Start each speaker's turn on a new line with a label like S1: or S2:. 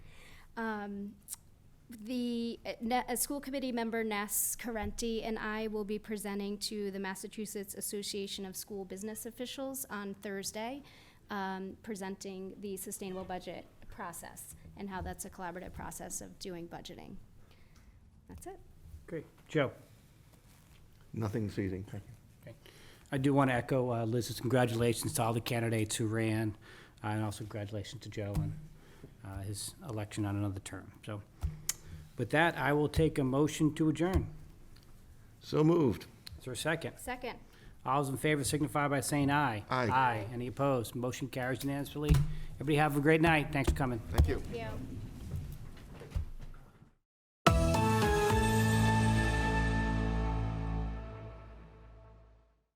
S1: Um, the uh, Ne- uh, school committee member Ness Carenti and I will be presenting to the Massachusetts Association of School Business Officials on Thursday, um, presenting the sustainable budget process and how that's a collaborative process of doing budgeting. That's it.
S2: Great. Joe?
S3: Nothing's easing. Thank you.
S2: I do want to echo uh, Liz's congratulations to all the candidates who ran, uh, and also congratulations to Joe on uh, his election on another term. So with that, I will take a motion to adjourn.
S3: So moved.
S2: Is there a second?
S1: Second.
S2: All those in favor signify by saying aye.
S3: Aye.
S2: Aye. Any opposed? Motion carries unanimously. Everybody have a great night. Thanks for coming.
S3: Thank you.
S1: Yeah.